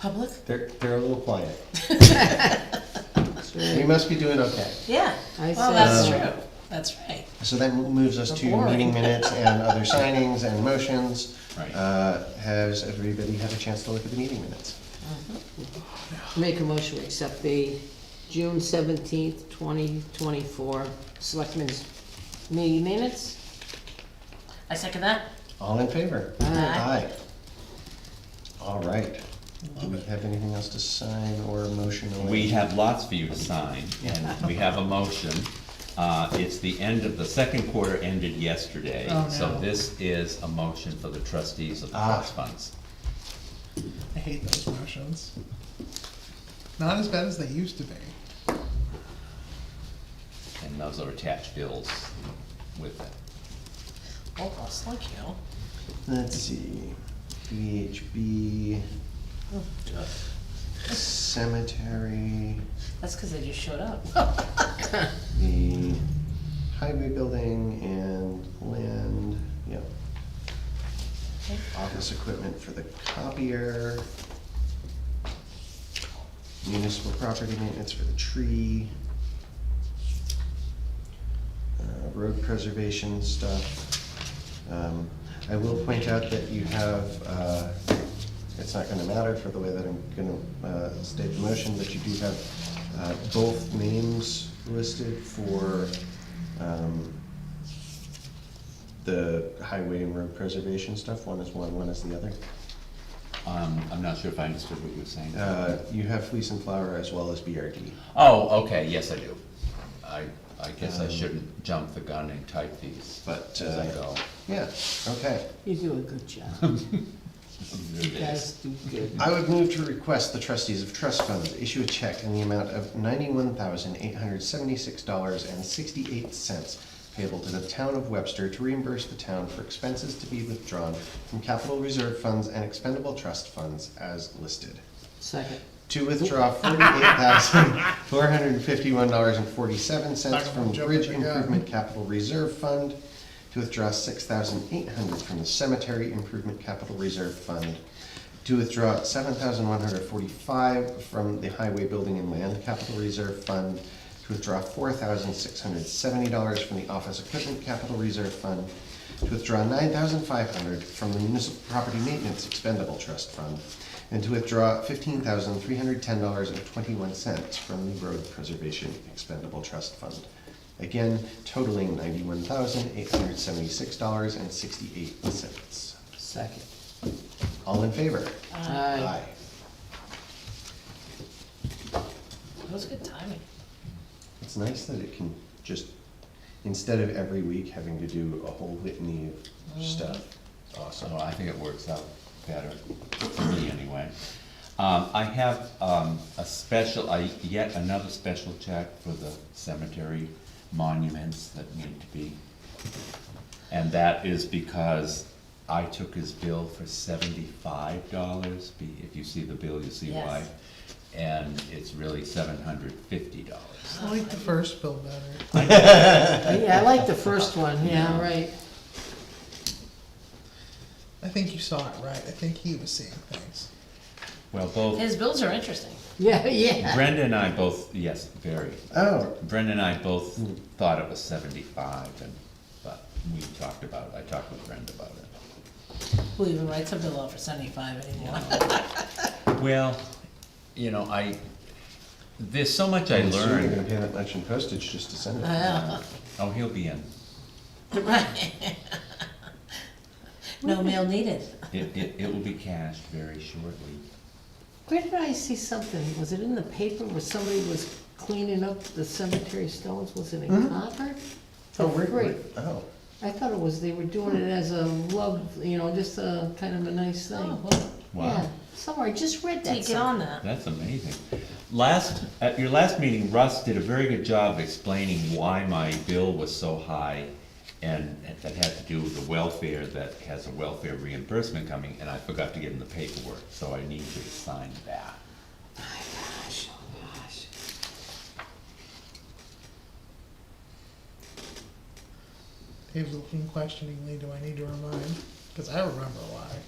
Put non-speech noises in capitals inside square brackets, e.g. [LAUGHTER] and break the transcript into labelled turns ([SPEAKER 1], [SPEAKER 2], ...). [SPEAKER 1] Public?
[SPEAKER 2] They're, they're a little quiet. We must be doing okay.
[SPEAKER 1] Yeah.
[SPEAKER 3] I
[SPEAKER 1] Well,
[SPEAKER 3] see.
[SPEAKER 1] that's
[SPEAKER 2] Um,
[SPEAKER 1] true. That's right.
[SPEAKER 2] So that moves us to
[SPEAKER 1] Boring.
[SPEAKER 2] meeting minutes and [LAUGHS] other signings and motions.
[SPEAKER 4] Right.
[SPEAKER 2] Uh, Has everybody had a chance to look at the meeting minutes?
[SPEAKER 3] Make a motion to accept the June seventeenth, twenty twenty-four Selectmen's meeting minutes.
[SPEAKER 1] I second that.
[SPEAKER 2] All in favor?
[SPEAKER 1] Aye.
[SPEAKER 2] Aye. All right. Do we have anything else to sign or a motion? or-
[SPEAKER 4] We have lots for you to sign, and we have a motion. Uh, it's the end of, the second quarter ended yesterday.
[SPEAKER 1] Oh,
[SPEAKER 4] So
[SPEAKER 1] no.
[SPEAKER 4] this is a motion for the trustees of the
[SPEAKER 2] Ah.
[SPEAKER 4] trust funds.
[SPEAKER 5] I hate those motions. Not as bad as they used to be.
[SPEAKER 4] And those are attached bills with it.
[SPEAKER 1] Almost like Oh, you.
[SPEAKER 2] Let's see, VHB,
[SPEAKER 3] Oh,
[SPEAKER 2] cemetery,
[SPEAKER 1] That's because they just showed up.
[SPEAKER 2] the highway building and land, yep. Office equipment for the copier. Municipal property maintenance for the tree. uh, road preservation stuff. Um, I will point out that you have, uh, it's not gonna matter for the way that I'm gonna uh, state the motion, but you do have uh, both names listed for um, the highway and road preservation stuff. One is one, one is the other.
[SPEAKER 4] Um, I'm not sure if I understood what you were saying.
[SPEAKER 2] Uh, You have Fleece and Flower as well as BRD.
[SPEAKER 4] Oh, okay, yes, I do. I, I guess I
[SPEAKER 2] Um,
[SPEAKER 4] shouldn't jump the gun and type these,
[SPEAKER 2] But,
[SPEAKER 4] but as I
[SPEAKER 2] uh,
[SPEAKER 4] go.
[SPEAKER 2] Yeah, okay.
[SPEAKER 3] [LAUGHS] You do a good job.
[SPEAKER 4] There
[SPEAKER 3] You
[SPEAKER 4] it is.
[SPEAKER 3] guys do good.
[SPEAKER 2] I would move to request the trustees of trust funds issue a check in the amount of ninety-one thousand eight hundred seventy-six dollars and sixty-eight cents payable to the town of Webster to reimburse the town for expenses to be withdrawn from capital reserve funds and expendable trust funds as listed.
[SPEAKER 3] Second.
[SPEAKER 2] To withdraw forty-eight thousand four hundred and fifty-one dollars and forty-seven cents from
[SPEAKER 5] Jumping
[SPEAKER 2] Bridge
[SPEAKER 5] the gun.
[SPEAKER 2] Improvement Capital Reserve Fund, to withdraw six thousand eight hundred from the Cemetery Improvement Capital Reserve Fund, to withdraw seven thousand one hundred forty-five from the Highway Building and Land Capital Reserve Fund, to withdraw four thousand six hundred seventy dollars from the Office Equipment Capital Reserve Fund, to withdraw nine thousand five hundred from the Municipal Property Maintenance Expendable Trust Fund, and to withdraw fifteen thousand three hundred ten dollars and twenty-one cents from the Road Preservation Expendable Trust Fund. Again, totaling ninety-one thousand eight hundred seventy-six dollars and sixty-eight cents.
[SPEAKER 3] Second.
[SPEAKER 2] All in favor?
[SPEAKER 3] Aye.
[SPEAKER 1] That was good timing.
[SPEAKER 2] It's nice that it can just, instead of every week having to do a whole litany
[SPEAKER 3] Mm-hmm.
[SPEAKER 2] of stuff.
[SPEAKER 4] Uh, So I think it works out better, for me anyway. Um, I have, um, a special, I, yet another special check for the cemetery monuments that need to be. And that is because I took his bill for seventy-five dollars, if you see the bill, you see why.
[SPEAKER 1] Yes.
[SPEAKER 4] And it's really seven hundred fifty dollars.
[SPEAKER 5] I like the first bill better.
[SPEAKER 3] Yeah, I like the first one, yeah, right.
[SPEAKER 5] I think you saw it right. I think he was seeing things.
[SPEAKER 4] Well, both
[SPEAKER 1] His bills are interesting.
[SPEAKER 3] Yeah, yeah.
[SPEAKER 4] Brenda and I both, yes, very,
[SPEAKER 2] Oh,
[SPEAKER 4] Brenda and I both thought it was seventy-five, and, but we talked about, I talked with Brenda about it.
[SPEAKER 1] Who even writes a bill out for seventy-five anymore? [LAUGHS]
[SPEAKER 4] Well, you know, I, there's so much I
[SPEAKER 2] I'm assuming you're gonna
[SPEAKER 4] learned.
[SPEAKER 2] pay that much in postage just to send it.
[SPEAKER 1] Yeah.
[SPEAKER 4] Oh, he'll be in.
[SPEAKER 1] [LAUGHS] Right. No mail needed.
[SPEAKER 4] It, it, it will be cashed very shortly.
[SPEAKER 3] Where did I see something? Was it in the paper where somebody was cleaning up the cemetery stones? Was it in copper?
[SPEAKER 2] Oh, we're,
[SPEAKER 3] Great.
[SPEAKER 2] we're- oh,
[SPEAKER 3] I thought it was, they were doing it as a love, you know, just a kind of a nice thing.
[SPEAKER 1] Oh, well,
[SPEAKER 3] Yeah,
[SPEAKER 4] Wow,
[SPEAKER 3] somewhere, I just read that.
[SPEAKER 1] take it on that.
[SPEAKER 4] that's amazing. Last, at your last meeting, Russ did a very good job of explaining why my bill was so high, and and that had to do with the welfare, that has a welfare reimbursement coming, and I forgot to give him the paperwork, so I need you to sign that.
[SPEAKER 3] Gosh, oh gosh.
[SPEAKER 5] He was looking questioningly, do I need to remind? Because I remember why.